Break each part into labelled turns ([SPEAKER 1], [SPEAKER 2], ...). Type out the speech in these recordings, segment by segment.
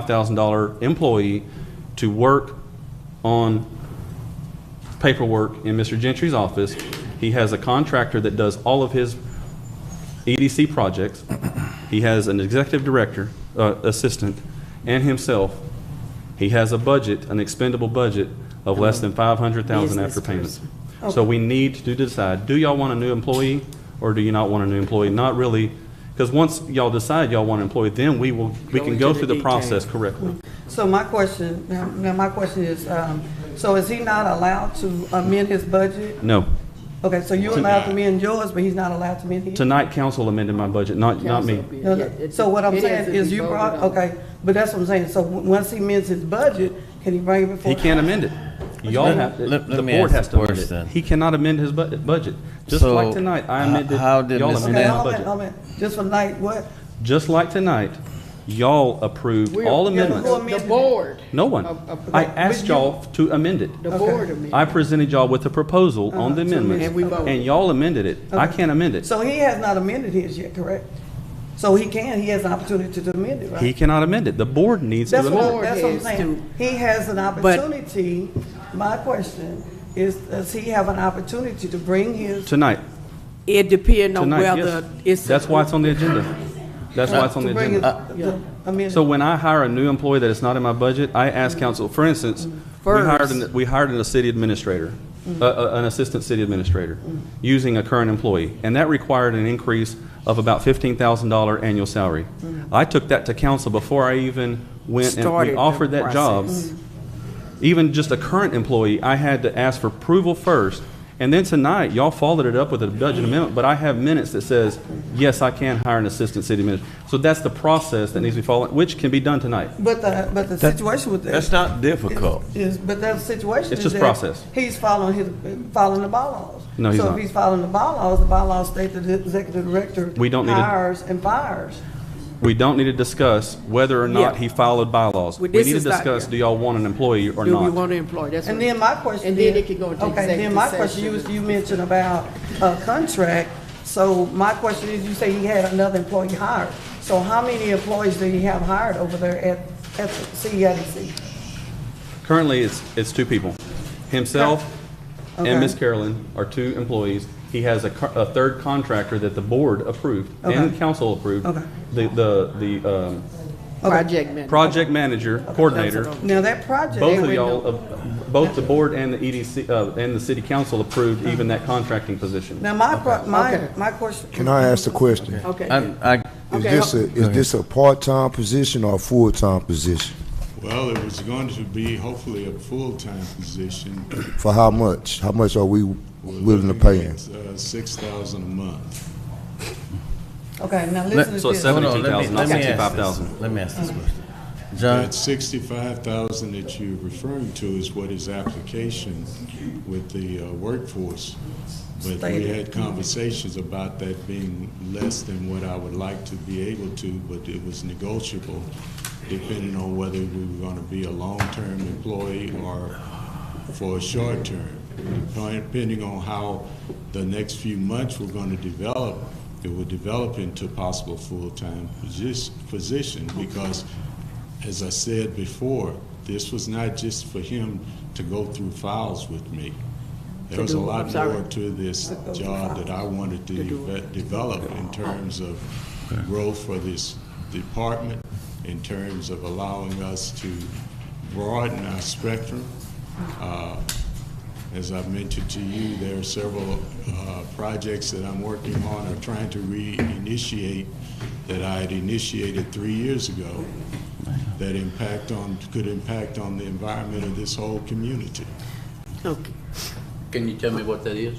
[SPEAKER 1] $165,000 employee to work on paperwork in Mr. Gentry's office. He has a contractor that does all of his EDC projects. He has an executive director, uh, assistant, and himself. He has a budget, an expendable budget of less than five hundred thousand after
[SPEAKER 2] Business
[SPEAKER 1] payments.
[SPEAKER 2] person.
[SPEAKER 1] So we need to decide, do y'all want a new employee or do you not want a new employee? Not really, because once y'all decide y'all want an employee, then we will, we
[SPEAKER 2] Go
[SPEAKER 1] can
[SPEAKER 2] into
[SPEAKER 1] go
[SPEAKER 2] the
[SPEAKER 1] through the
[SPEAKER 2] details.
[SPEAKER 1] process correctly.
[SPEAKER 3] So my question, now, now my question is, um, so is he not allowed to amend his budget?
[SPEAKER 1] No.
[SPEAKER 3] Okay, so you're allowed to amend yours, but he's not allowed to amend his?
[SPEAKER 1] Tonight, council amended my budget, not, not me.
[SPEAKER 3] No, no. So what I'm saying is you brought, okay, but that's what I'm saying, so w- once he amends his budget, can he bring it before?
[SPEAKER 1] He can't amend it. Y'all
[SPEAKER 3] Let-
[SPEAKER 1] have, to-
[SPEAKER 4] let- let
[SPEAKER 1] the
[SPEAKER 4] me
[SPEAKER 1] board
[SPEAKER 4] ask
[SPEAKER 1] has
[SPEAKER 4] the
[SPEAKER 1] to amend
[SPEAKER 4] question.
[SPEAKER 1] it. He cannot amend his bu- budget. Just
[SPEAKER 4] So,
[SPEAKER 1] like tonight, I
[SPEAKER 4] h-
[SPEAKER 1] amended,
[SPEAKER 4] how did
[SPEAKER 1] y'all
[SPEAKER 4] Ms.
[SPEAKER 3] Okay,
[SPEAKER 1] amended my
[SPEAKER 4] Nan-
[SPEAKER 3] hold on,
[SPEAKER 1] budget.
[SPEAKER 3] hold on, just for night, what?
[SPEAKER 1] Just like tonight, y'all approved
[SPEAKER 2] We're-
[SPEAKER 1] all
[SPEAKER 2] yeah,
[SPEAKER 3] who
[SPEAKER 1] amendments.
[SPEAKER 3] amended
[SPEAKER 2] The
[SPEAKER 3] it?
[SPEAKER 2] board,
[SPEAKER 1] No one.
[SPEAKER 2] Uh, uh,
[SPEAKER 1] I
[SPEAKER 2] but
[SPEAKER 1] asked y'all to amend it.
[SPEAKER 2] the
[SPEAKER 3] Okay.
[SPEAKER 2] board amended.
[SPEAKER 1] I presented y'all with a proposal on the
[SPEAKER 3] Uh-huh, to amend
[SPEAKER 1] amendments,
[SPEAKER 3] it.
[SPEAKER 2] And we voted.
[SPEAKER 1] and y'all amended it. I
[SPEAKER 3] Okay.
[SPEAKER 1] can't amend it.
[SPEAKER 3] So he has not amended his yet, correct? So he can, he has an opportunity to amend it, right?
[SPEAKER 1] He cannot amend it. The board needs to
[SPEAKER 3] That's
[SPEAKER 1] amend
[SPEAKER 3] what,
[SPEAKER 1] it.
[SPEAKER 3] I'm- that's what I'm
[SPEAKER 2] Board has
[SPEAKER 3] saying. He has an opportunity, my question is, does he have an opportunity to bring his,
[SPEAKER 1] Tonight,
[SPEAKER 2] It
[SPEAKER 3] Uh,
[SPEAKER 2] depends on
[SPEAKER 1] tonight,
[SPEAKER 2] whether
[SPEAKER 1] yes.
[SPEAKER 2] it's.
[SPEAKER 1] That's why it's on the agenda. That's why it's on the
[SPEAKER 3] Uh, to
[SPEAKER 1] agenda. Uh,
[SPEAKER 3] bring his,
[SPEAKER 2] Yeah.
[SPEAKER 3] the amendment?
[SPEAKER 1] So when I hire a new employee that is not in my budget, I ask council, for instance, we hired,
[SPEAKER 2] First.
[SPEAKER 1] an- we hired a city administrator,
[SPEAKER 3] Mm-hmm.
[SPEAKER 1] a- a- an assistant city administrator, using a current employee, and that required an increase of about fifteen thousand dollar annual salary.
[SPEAKER 3] Mm-hmm.
[SPEAKER 1] I took that to council before I even went and
[SPEAKER 2] Started
[SPEAKER 1] we
[SPEAKER 2] the
[SPEAKER 1] offered that job.
[SPEAKER 2] process. Mm-hmm.
[SPEAKER 1] Even just a current employee, I had to ask for approval first, and then tonight, y'all followed it up with a budget amendment, but I have minutes that says, yes, I can hire an assistant city administrator. So that's the process that needs to be followed, which can be done tonight.
[SPEAKER 3] But the, but the situation with that.
[SPEAKER 4] That's not difficult.
[SPEAKER 3] Is, but that situation
[SPEAKER 1] It's
[SPEAKER 3] is
[SPEAKER 1] just
[SPEAKER 3] that
[SPEAKER 1] process.
[SPEAKER 3] He's following his, following the bylaws.
[SPEAKER 1] No, he's
[SPEAKER 3] So
[SPEAKER 1] not.
[SPEAKER 3] if he's following the bylaws, the bylaws state that the executive director.
[SPEAKER 1] We don't need to-
[SPEAKER 3] Hires and fires.
[SPEAKER 1] We don't need to discuss whether or not
[SPEAKER 2] Yeah.
[SPEAKER 1] he followed bylaws. We
[SPEAKER 2] Well,
[SPEAKER 1] need
[SPEAKER 2] this
[SPEAKER 1] to
[SPEAKER 2] is not-
[SPEAKER 1] discuss, do y'all want an employee or
[SPEAKER 2] Do we
[SPEAKER 1] not?
[SPEAKER 2] want to employ, that's
[SPEAKER 3] And
[SPEAKER 2] what-
[SPEAKER 3] then my question.
[SPEAKER 2] And then it could go into
[SPEAKER 3] Okay, then my
[SPEAKER 2] executive
[SPEAKER 3] question, you was,
[SPEAKER 2] session.
[SPEAKER 3] you mentioned about a contract. So my question is, you say he had another employee hired. So how many employees do you have hired over there at, at E CEIDC?
[SPEAKER 1] Currently, it's, it's two people. Himself
[SPEAKER 3] Okay.
[SPEAKER 1] and Ms. Carolyn are two employees. He has a, co- a third contractor that the board approved and
[SPEAKER 3] Okay.
[SPEAKER 1] council approved.
[SPEAKER 3] Okay.
[SPEAKER 1] The, the, the, um,
[SPEAKER 2] Project manager.
[SPEAKER 1] project manager, coordinator,
[SPEAKER 2] That's
[SPEAKER 3] Now, that project.
[SPEAKER 1] both of
[SPEAKER 2] They
[SPEAKER 1] y'all, uh, both the board and the EDC, uh, and the city council approved even that contracting position.
[SPEAKER 3] Now, my, pro- my,
[SPEAKER 2] Okay.
[SPEAKER 3] my question.
[SPEAKER 5] Can I ask a question?
[SPEAKER 2] Okay.
[SPEAKER 4] Um, I, I,
[SPEAKER 5] Is
[SPEAKER 2] Okay,
[SPEAKER 5] this a,
[SPEAKER 2] ho-
[SPEAKER 5] is this a part-time position or a full-time position?
[SPEAKER 6] Well, it was going to be hopefully a full-time position.
[SPEAKER 5] For how much? How much are we willing to pay him?
[SPEAKER 6] uh, Six thousand a month.
[SPEAKER 3] Okay, now listen to
[SPEAKER 1] So
[SPEAKER 3] this.
[SPEAKER 4] hold on, let me,
[SPEAKER 1] 17,000, not
[SPEAKER 4] let me ask
[SPEAKER 1] 65,000.
[SPEAKER 4] this. Let me ask this question. John,
[SPEAKER 6] That sixty-five thousand that you're referring to is what his application with the uh, workforce. But we
[SPEAKER 3] Stated.
[SPEAKER 6] had conversations about that being less than what I would like to be able to, but it was negotiable depending on whether we were going to be a long-term employee or for a short term. Depending on how the next few months were going to develop, it would develop into possible full-time posi- position because, as I said before, this was not just for him to go through files with me. There was a
[SPEAKER 2] do-
[SPEAKER 6] lot
[SPEAKER 2] sorry.
[SPEAKER 6] more to this job that I wanted to deve- develop in terms of growth for this department, in terms of allowing us to broaden our spectrum. Uh, As I've mentioned to you, there are several uh, projects that I'm working on or trying to reinitiate that I had initiated three years ago that impact on, could impact on the environment of this whole community.
[SPEAKER 2] Okay.
[SPEAKER 7] Can you tell me what that is?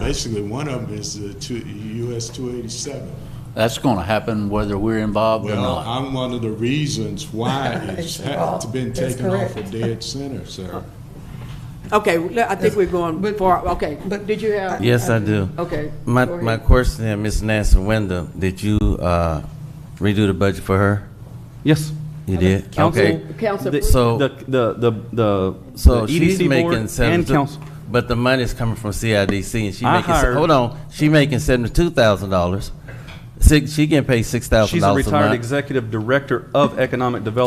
[SPEAKER 6] Basically, one of them is the two, US 287.
[SPEAKER 7] That's going to happen whether we're involved or
[SPEAKER 6] Well,
[SPEAKER 7] not.
[SPEAKER 6] I'm one of the reasons why it's
[SPEAKER 3] It's
[SPEAKER 6] ha- it's been
[SPEAKER 3] That's
[SPEAKER 6] taken off a
[SPEAKER 3] correct.
[SPEAKER 6] dead center, sir.
[SPEAKER 2] Okay, well, I think we're going far, okay. But did you have?
[SPEAKER 4] yes, I do.
[SPEAKER 2] Okay.
[SPEAKER 4] My,
[SPEAKER 2] go ahead.
[SPEAKER 4] my question, to Ms. Nancy Wyndham, did you, uh, redo the budget for her?
[SPEAKER 1] Yes.
[SPEAKER 4] You did?
[SPEAKER 1] Council-
[SPEAKER 4] Okay.
[SPEAKER 2] Council
[SPEAKER 1] The-
[SPEAKER 2] approved.
[SPEAKER 4] So-
[SPEAKER 1] The, the, the, the
[SPEAKER 4] So
[SPEAKER 1] the
[SPEAKER 4] she's
[SPEAKER 1] EDC board
[SPEAKER 4] making seven,
[SPEAKER 1] And council.
[SPEAKER 4] but the money's coming from CIDC, and she
[SPEAKER 1] I
[SPEAKER 4] making. se-
[SPEAKER 1] hired-
[SPEAKER 4] hold on, she making seventy-two thousand dollars. Six, she getting paid six thousand
[SPEAKER 1] She's a
[SPEAKER 4] dollars a month.
[SPEAKER 1] retired executive director of economic development